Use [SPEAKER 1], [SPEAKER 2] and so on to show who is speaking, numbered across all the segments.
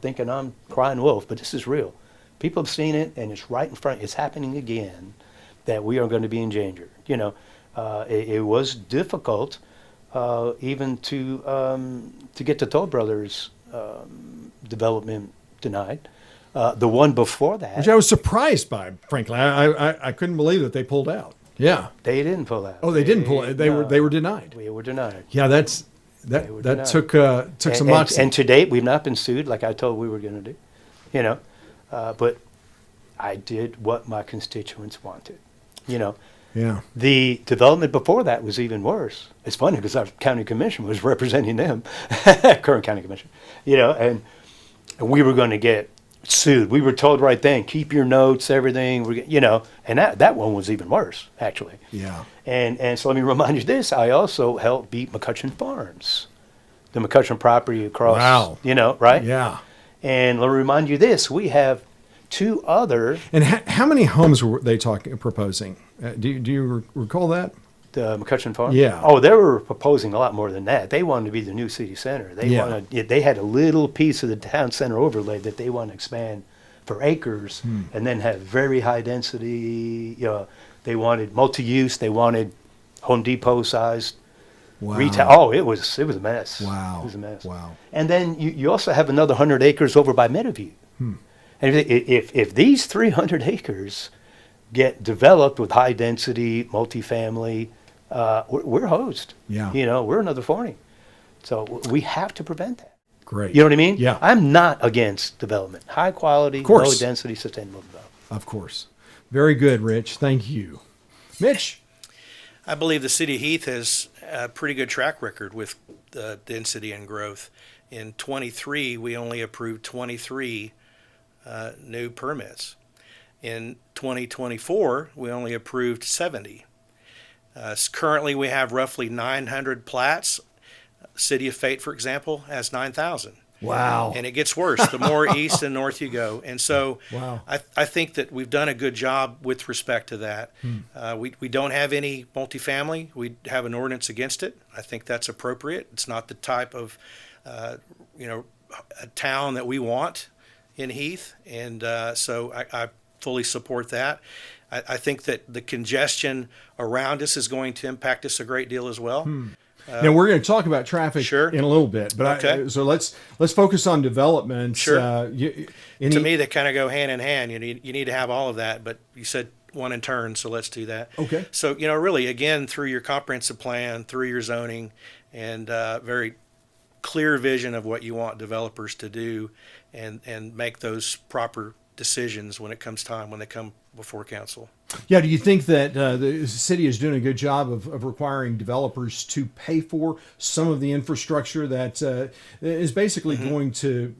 [SPEAKER 1] thinking I'm crying wolf, but this is real. People have seen it, and it's right in front. It's happening again. That we are going to be in danger. You know, uh, it, it was difficult uh, even to um, to get the Toll Brothers um, development denied. Uh, the one before that,
[SPEAKER 2] which I was surprised by, frankly. I, I, I couldn't believe that they pulled out. Yeah.
[SPEAKER 1] they didn't pull out.
[SPEAKER 2] Oh, they didn't pull it. They were
[SPEAKER 1] no,
[SPEAKER 2] they were denied.
[SPEAKER 1] We were denied.
[SPEAKER 2] Yeah, that's
[SPEAKER 1] They
[SPEAKER 2] that
[SPEAKER 1] were
[SPEAKER 2] that
[SPEAKER 1] denied.
[SPEAKER 2] took uh, took
[SPEAKER 1] and,
[SPEAKER 2] some
[SPEAKER 1] and-
[SPEAKER 2] moxie.
[SPEAKER 1] and to date, we've not been sued like I told we were going to do, you know. Uh, but I did what my constituents wanted, you know.
[SPEAKER 2] yeah.
[SPEAKER 1] The development before that was even worse. It's funny because our county commission was representing them, current county commission, you know, and, and we were going to get sued. We were told right then, keep your notes, everything, we're, g- you know, and that, that one was even worse, actually.
[SPEAKER 2] Yeah.
[SPEAKER 1] And, and so let me remind you this I also helped beat McCutcheon Farms, the McCutcheon property across,
[SPEAKER 2] Wow.
[SPEAKER 1] you know, right?
[SPEAKER 2] Yeah.
[SPEAKER 1] And let me remind you this we have two other,
[SPEAKER 2] And ha- how many homes were they talking proposing? Uh, do you- do you re- recall that?
[SPEAKER 1] the McCutcheon Farms.
[SPEAKER 2] Yeah.
[SPEAKER 1] Oh, they were proposing a lot more than that. They wanted to be the new city center. They
[SPEAKER 2] Yeah.
[SPEAKER 1] wanted, yeah, they had a little piece of the town center overlay that they want to expand for acres
[SPEAKER 2] Hmm.
[SPEAKER 1] and then have very high density. You know, they wanted multi use, they wanted Home Depot sized
[SPEAKER 2] Wow.
[SPEAKER 1] retail. Oh, it was it was a mess.
[SPEAKER 2] Wow.
[SPEAKER 1] it was a mess.
[SPEAKER 2] Wow.
[SPEAKER 1] And then you, you also have another hundred acres over by Meadowview.
[SPEAKER 2] Hmm.
[SPEAKER 1] And if, they- if if these three hundred acres get developed with high density multifamily, uh, we're, we're hosed.
[SPEAKER 2] Yeah.
[SPEAKER 1] you know we're another forty. So w- we have to prevent that.
[SPEAKER 2] Great.
[SPEAKER 1] You know what I mean?
[SPEAKER 2] Yeah.
[SPEAKER 1] I'm not against development, high quality, low
[SPEAKER 2] course.
[SPEAKER 1] density, sustainable development.
[SPEAKER 2] Of course. Very good, Rich. Thank you. Mitch.
[SPEAKER 3] I believe the city of Heath has a pretty good track record with uh, density and growth. In 23, we only approved 23 uh, new permits. In 2024, we only approved 70. Uh, s- currently, we have roughly 900 plats. City of Fate, for example, has 9,000.
[SPEAKER 2] Wow.
[SPEAKER 3] And it gets worse the more east and north you go. And so
[SPEAKER 2] Wow.
[SPEAKER 3] I, I think that we've done a good job with respect to that.
[SPEAKER 2] Hmm.
[SPEAKER 3] Uh, we, we don't have any multifamily. We have an ordinance against it. I think that's appropriate. It's not the type of, uh, you know, a town that we want in Heath. And uh, so I, I fully support that. I, I think that the congestion around us is going to impact us a great deal as well.
[SPEAKER 2] Hmm. uh, now we're going to talk about traffic
[SPEAKER 3] Sure.
[SPEAKER 2] in a little bit, but I,
[SPEAKER 3] Okay.
[SPEAKER 2] so let's let's focus on development.
[SPEAKER 3] Sure.
[SPEAKER 2] Uh, you, any,
[SPEAKER 3] to me they kind of go hand in hand you need you need to have all of that but you said one in turn so let's do that
[SPEAKER 2] Okay.
[SPEAKER 3] so you know really again through your comprehensive plan through your zoning and uh, very clear vision of what you want developers to do and and make those proper decisions when it comes time when they come before council
[SPEAKER 2] Yeah, do you think that uh, the city is doing a good job of, of requiring developers to pay for some of the infrastructure that uh, is basically going to,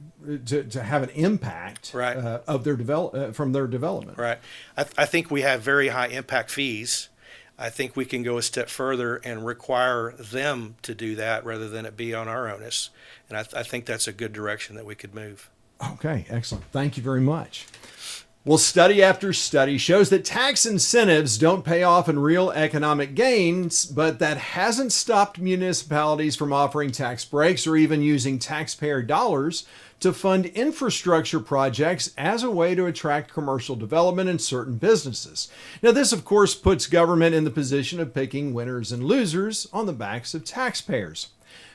[SPEAKER 2] to to have an impact
[SPEAKER 3] Right.
[SPEAKER 2] uh, of their develop uh, from their development?
[SPEAKER 3] Right. I, th- I think we have very high impact fees. I think we can go a step further and require them to do that rather than it be on our onus. And I, th- I think that's a good direction that we could move.
[SPEAKER 2] Okay, excellent. Thank you very much. Well, study after study shows that tax incentives don't pay off in real economic gains, but that hasn't stopped municipalities from offering tax breaks or even using taxpayer dollars to fund infrastructure projects as a way to attract commercial development and certain businesses. Now, this, of course, puts government in the position of picking winners and losers on the backs of taxpayers.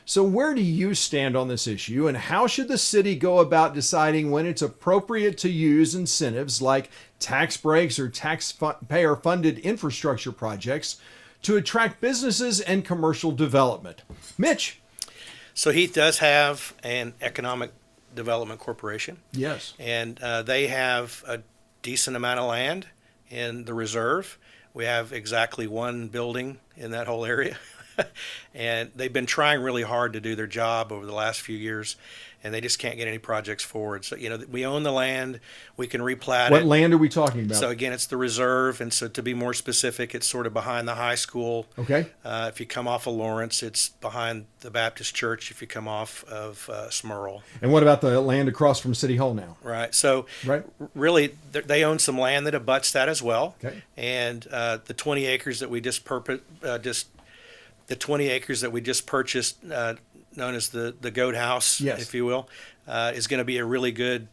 [SPEAKER 2] So, where do you stand on this issue, and how should the city go about deciding when it's appropriate to use incentives like tax breaks or taxpayer funded infrastructure projects to attract businesses and commercial development? Mitch.
[SPEAKER 3] So Heath does have an economic development corporation,
[SPEAKER 2] Yes.
[SPEAKER 3] and uh, they have a decent amount of land in the reserve. We have exactly one building in that whole area. and they've been trying really hard to do their job over the last few years, and they just can't get any projects forward. So, you know, we own the land, we can replat
[SPEAKER 2] What
[SPEAKER 3] it.
[SPEAKER 2] land are we talking about?
[SPEAKER 3] So again, it's the reserve, and so to be more specific, it's sort of behind the high school.
[SPEAKER 2] Okay.
[SPEAKER 3] Uh, if you come off of Lawrence, it's behind the Baptist Church. If you come off of uh, Smurl,
[SPEAKER 2] and what about the land across from City Hall now?
[SPEAKER 3] right? So
[SPEAKER 2] Right.
[SPEAKER 3] really, th- they own some land that abuts that as well.
[SPEAKER 2] Okay.
[SPEAKER 3] And uh, the 20 acres that we just purpo- uh, just the 20 acres that we just purchased uh, known as the the goat house,
[SPEAKER 2] Yes.
[SPEAKER 3] if you will, uh, is going to be a really good